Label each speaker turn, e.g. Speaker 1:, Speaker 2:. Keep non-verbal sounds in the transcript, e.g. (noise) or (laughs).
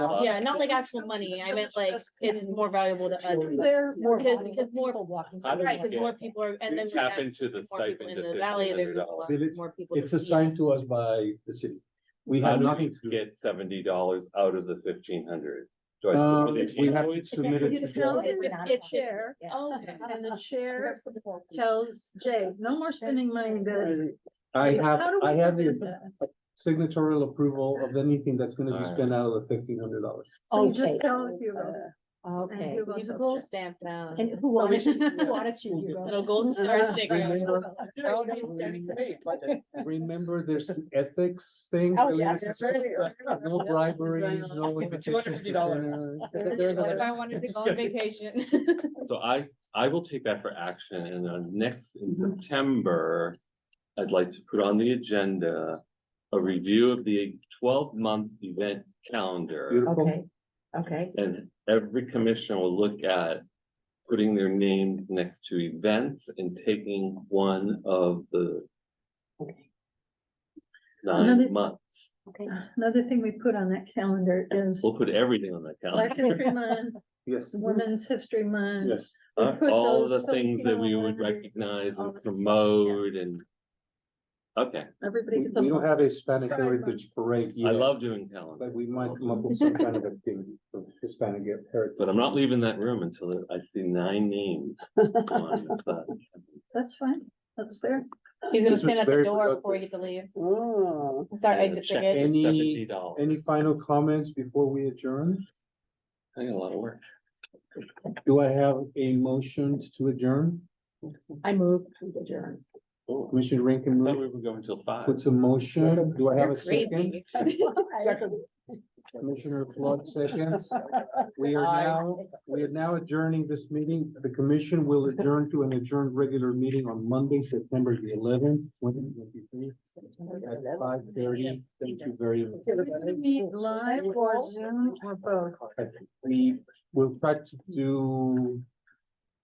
Speaker 1: Uh,
Speaker 2: Yeah, not like actual money. I meant like it's more valuable to us.
Speaker 3: They're more.
Speaker 2: Because-
Speaker 3: vulnerable
Speaker 2: because more-
Speaker 3: people walking.
Speaker 4: How do we
Speaker 2: Right, because
Speaker 4: get-
Speaker 2: more people are, and then.
Speaker 4: We
Speaker 2: we
Speaker 4: tap
Speaker 2: have
Speaker 4: into the
Speaker 2: more people
Speaker 4: stipend.
Speaker 2: In the valley, there's a lot
Speaker 1: But it's-
Speaker 2: more people.
Speaker 1: It's
Speaker 2: that see
Speaker 1: assigned
Speaker 2: us.
Speaker 1: to us by the city. We
Speaker 4: How
Speaker 1: have
Speaker 4: do
Speaker 1: nothing.
Speaker 4: you get seventy dollars out of the fifteen hundred? Do I
Speaker 1: Um,
Speaker 4: submit
Speaker 1: we
Speaker 4: an
Speaker 1: have to
Speaker 4: invoice?
Speaker 1: submit it to
Speaker 5: tell
Speaker 1: Dell.
Speaker 5: them
Speaker 3: Yeah.
Speaker 2: it's
Speaker 5: Chair,
Speaker 3: Yeah.
Speaker 2: Oh, okay.
Speaker 5: and the chair
Speaker 3: That's the poor people.
Speaker 5: tells Jay, no more spending money there.
Speaker 1: I have,
Speaker 5: How do we
Speaker 1: I have
Speaker 5: prevent
Speaker 1: the
Speaker 5: that?
Speaker 1: signatorial approval of anything that's gonna be
Speaker 4: Alright.
Speaker 1: spent out of the fifteen hundred dollars.
Speaker 5: So you just
Speaker 3: Okay.
Speaker 5: tell if you will.
Speaker 3: Okay,
Speaker 5: who-
Speaker 2: You go stamp down.
Speaker 3: and who audits, you? (laughs) who audits you? you? (laughs)
Speaker 2: Little golden star sticker.
Speaker 1: Remember, there's an ethics thing.
Speaker 3: Oh,
Speaker 1: that we
Speaker 3: yeah,
Speaker 1: have to
Speaker 3: that's
Speaker 1: set
Speaker 3: right.
Speaker 1: aside. No briberies, no.
Speaker 2: For
Speaker 1: invitations to
Speaker 6: $250.
Speaker 1: dinners.
Speaker 6: There's
Speaker 2: What
Speaker 6: a-
Speaker 2: if I wanted to go on vacation? (laughs)
Speaker 4: So I, I will take that for action and on next,
Speaker 5: Mm-hmm.
Speaker 4: in September, I'd like to put on the agenda a review of the twelve-month event calendar.
Speaker 1: Beautiful.
Speaker 3: Okay, okay,
Speaker 4: And every commissioner will look at putting their names next to events and taking one of the
Speaker 3: okay,
Speaker 5: Another-
Speaker 4: nine months.
Speaker 3: okay.
Speaker 5: Another thing we put on that calendar is
Speaker 4: We'll put everything on that
Speaker 5: Black
Speaker 4: calendar.
Speaker 5: History Month,
Speaker 1: Yes,
Speaker 5: Women's History Month.
Speaker 1: yes.
Speaker 4: Uh,
Speaker 5: put
Speaker 4: All the
Speaker 5: those
Speaker 4: things that we would
Speaker 5: Filipino and
Speaker 4: recognize
Speaker 5: all
Speaker 4: and
Speaker 5: that stuff, yeah.
Speaker 4: promote and. Okay,
Speaker 5: Everybody
Speaker 1: We
Speaker 5: gets a
Speaker 1: we don't
Speaker 5: month.
Speaker 1: have a Hispanic
Speaker 5: Pride
Speaker 1: Heritage Parade
Speaker 4: I
Speaker 1: yet,
Speaker 4: love doing calendars.
Speaker 1: but we might
Speaker 4: so-
Speaker 1: come up
Speaker 5: (laughs)
Speaker 1: with some kind of activity for Hispanic heritage.
Speaker 4: But I'm not leaving that room until I see nine
Speaker 5: (laughs)
Speaker 4: names. on the-
Speaker 5: That's fine. That's fair.
Speaker 2: He's gonna
Speaker 1: This was
Speaker 2: stand at the
Speaker 1: very
Speaker 2: door before you
Speaker 1: productive.
Speaker 2: get to leave.
Speaker 6: Oh,
Speaker 2: Sorry,
Speaker 4: the
Speaker 2: exit
Speaker 4: check
Speaker 2: ticket.
Speaker 4: is
Speaker 1: Any-
Speaker 4: $70.
Speaker 1: Any final comments before we adjourn?
Speaker 4: I got a lot of work.
Speaker 1: Do I have a motion to adjourn?
Speaker 3: I move to adjourn.
Speaker 4: Oh,
Speaker 1: Commissioner
Speaker 4: I thought
Speaker 1: Rankin
Speaker 4: we were going till five.
Speaker 1: puts a motion. Do I have
Speaker 2: You're
Speaker 1: a second?
Speaker 2: crazy.
Speaker 3: Second.
Speaker 1: Commissioner Flood
Speaker 2: (laughs)
Speaker 1: seconds. We are
Speaker 6: Aye.
Speaker 1: now, we are now adjourning this meeting. The commission will adjourn to an adjourned regular meeting on Monday, September the eleventh, twenty twenty-three at five thirty. Thank you very much.
Speaker 5: We're gonna Meet live or Zoom or both.
Speaker 1: We will try to do